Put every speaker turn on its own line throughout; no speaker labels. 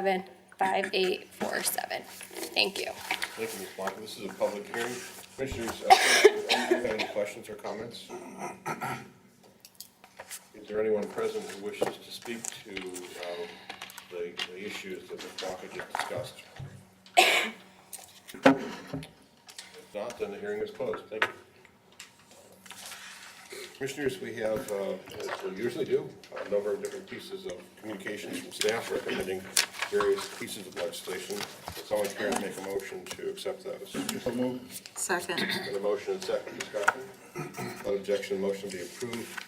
seven five eight four seven. Thank you.
Thank you, Ms. Blanco. This is a public hearing. Commissioners, uh, do you have any questions or comments? Is there anyone present who wishes to speak to um, the the issues that Ms. Blanco just discussed? If not, then the hearing is closed. Thank you. Commissioners, we have, uh, as we usually do, a number of different pieces of communications from staff recommending various pieces of legislation. It's always fair to make a motion to accept those.
Second.
And a motion and second discussion. Without objection, motion be approved.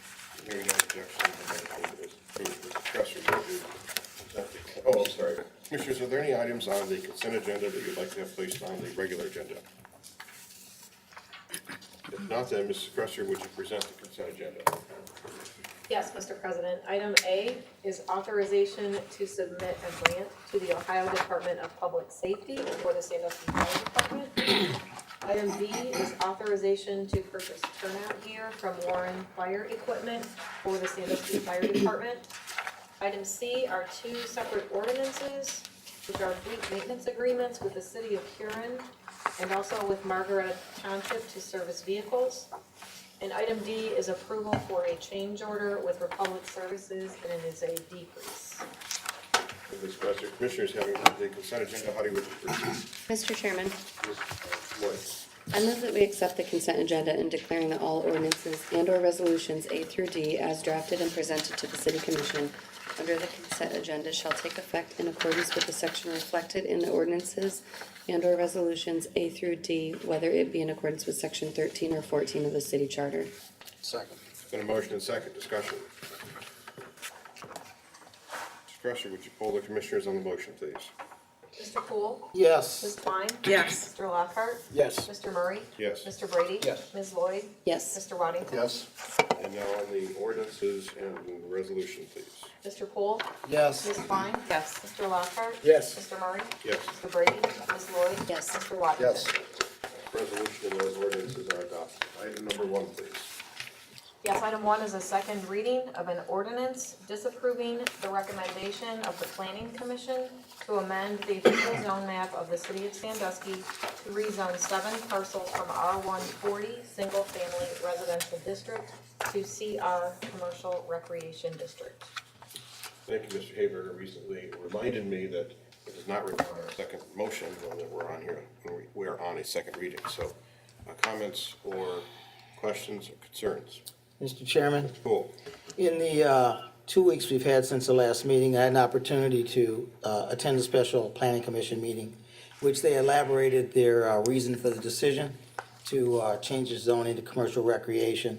Hearing no objection, the motion is approved. The discussion will be consented. Oh, I'm sorry. Commissioners, are there any items on the consent agenda that you'd like to have placed on the regular agenda? If not, then Mrs. Cresser, would you present the consent agenda?
Yes, Mr. President. Item A is authorization to submit a grant to the Ohio Department of Public Safety for the Sandusky Fire Department. Item B is authorization to purchase turnout gear from Warren Fire Equipment for the Sandusky Fire Department. Item C are two separate ordinances, which are fleet maintenance agreements with the city of Huron and also with Margaret Township to service vehicles. And item D is approval for a change order with Republic Services, and it is a decrease.
Mrs. Cresser, Commissioners, having heard the consent agenda, how do you wish to proceed?
Mr. Chairman,
Ms. Woods?
I move that we accept the consent agenda in declaring that all ordinances and/or resolutions A through D as drafted and presented to the City Commission under the consent agenda shall take effect in accordance with the section reflected in the ordinances and/or resolutions A through D, whether it be in accordance with section thirteen or fourteen of the city charter.
Been a motion and second discussion. Mrs. Cresser, would you poll the commissioners on the motion, please?
Mr. Poole? Ms.
Yes.
Klein?
Yes.
Mr. Lockhart?
Yes.
Mr. Murray?
Yes.
Mr. Brady?
Yes.
Ms. Lloyd?
Yes.
Mr. Waddington?
Yes.
And now on the ordinances and resolution, please.
Mr. Poole? Ms.
Yes.
Klein? Yes. Mr. Lockhart?
Yes.
Mr. Murray?
Yes.
Mr. Brady? Ms. Lloyd?
Yes.
Mr. Waddington?
Yes.
Resolution and those ordinances are adopted. Item number one, please.
Yes, item one is a second reading of an ordinance disapproving the recommendation of the planning commission to amend the official zone map of the city of Sandusky to rezone seven parcels from R one forty, single family residential district to CR, commercial recreation district.
Thank you, Mr. Haber recently reminded me that it does not require a second motion when we're on here, when we- we're on a second reading. So uh, comments or questions or concerns?
Mr. Chairman,
Cool.
in the uh, two weeks we've had since the last meeting, I had an opportunity to uh, attend a special planning commission meeting, which they elaborated their uh, reason for the decision to uh, change the zoning to commercial recreation.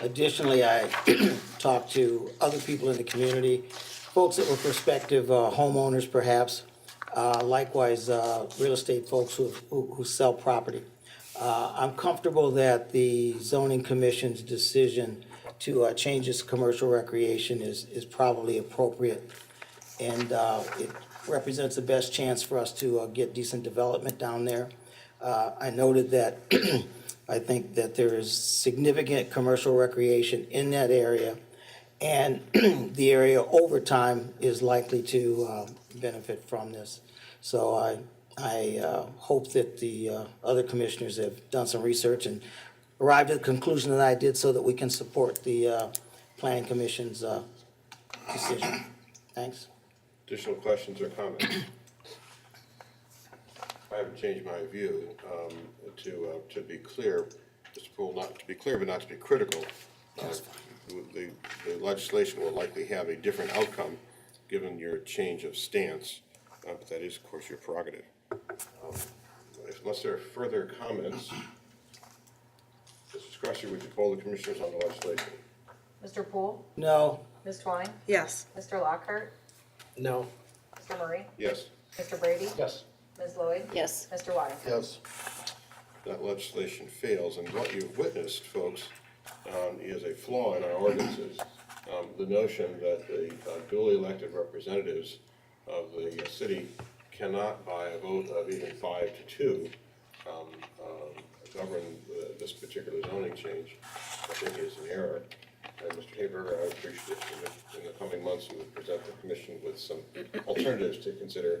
Additionally, I talked to other people in the community, folks that were prospective uh, homeowners perhaps, uh, likewise, uh, real estate folks who, who who sell property. Uh, I'm comfortable that the zoning commission's decision to uh, change this to commercial recreation is, is probably appropriate. And uh, it represents the best chance for us to uh, get decent development down there. Uh, I noted that, I think that there is significant commercial recreation in that area. And the area over time is likely to uh, benefit from this. So I, I uh, hope that the uh, other commissioners have done some research and arrived at the conclusion that I did so that we can support the uh, planning commission's uh, decision. Thanks.
Additional questions or comments? I haven't changed my view, um, to, uh, to be clear, Mr. Poole, not to be clear, but not to be critical. uh, The, the legislation will likely have a different outcome, given your change of stance, uh, but that is, of course, your prerogative. Um, Unless there are further comments, Mrs. Crusher, would you poll the commissioners on the legislation?
Mr. Poole?
No?
Ms. Twine?
Yes.
Mr. Lockhart?
No.
Mr. Murray?
Yes?
Mr. Brady?
Yes.
Ms. Lloyd?
Yes.
Mr. Waddington?
Yes.
that legislation fails, and what you've witnessed, folks, um, is a flaw in our ordinances. Um, the notion that the uh, duly elected representatives of the city cannot by a vote of even five to two, um, uh, um, govern the- this particular zoning change, I think is an error. And Mr. Tabor, I appreciate it. In the coming months, you would present the commission with some alternatives to consider